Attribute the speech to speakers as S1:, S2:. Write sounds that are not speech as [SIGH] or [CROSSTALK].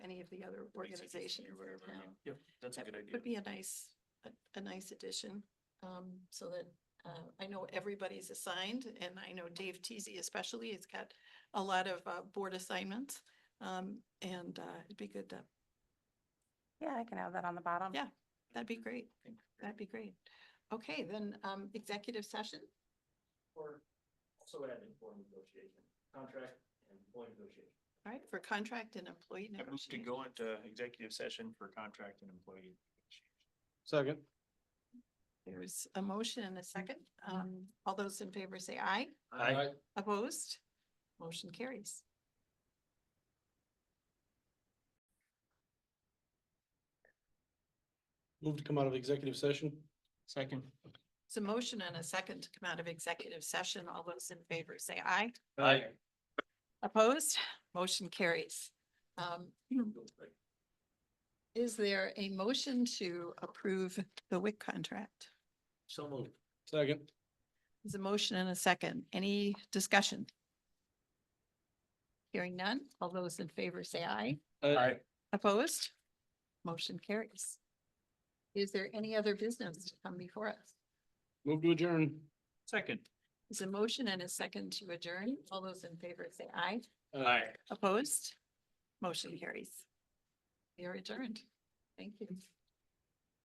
S1: the other organizations
S2: organization
S1: in
S2: or whatever. yeah.
S1: town.
S2: Yep, that's a
S1: That
S2: good idea.
S1: Would be a nice, a, a nice addition, um, so that, uh, I know everybody's assigned, and I know Dave Teasy especially has got a lot of, uh, board assignments, um, and, uh, it'd be good to,
S3: Yeah, I can have that on the bottom.
S1: Yeah. that'd
S2: Mm-hmm.
S1: be great, that'd be great. Okay, then, um, executive session,
S4: Or also add informed negotiation, contract and employee negotiation.
S1: all right, for contract and employee
S2: I moved to
S1: negotiation.
S2: go into executive session for contract and employee.
S5: Second.
S1: There's a motion and a second,
S2: Mm-hmm.
S1: um, all those in favor say aye,
S2: Aye.
S1: opposed, motion carries.
S5: Move to come out of executive session.
S2: Second.
S1: It's a motion and a second to come out of executive session. All those in favor say aye.
S2: Aye.
S1: Opposed? Motion carries. Um, [CLEARS THROAT] Is there a motion to approve the WIC contract?
S4: So moved.
S5: Second.
S1: There's a motion and a second. Any discussion? Hearing none. All those in favor say aye.
S2: Aye.
S1: Opposed? Motion carries. Is there any other business to come before us?
S5: Move to adjourn.
S2: Second.
S1: There's a motion and a second to adjourn. All those in favor say aye.
S2: Aye.
S1: Opposed? Motion carries. You're adjourned. Thank you.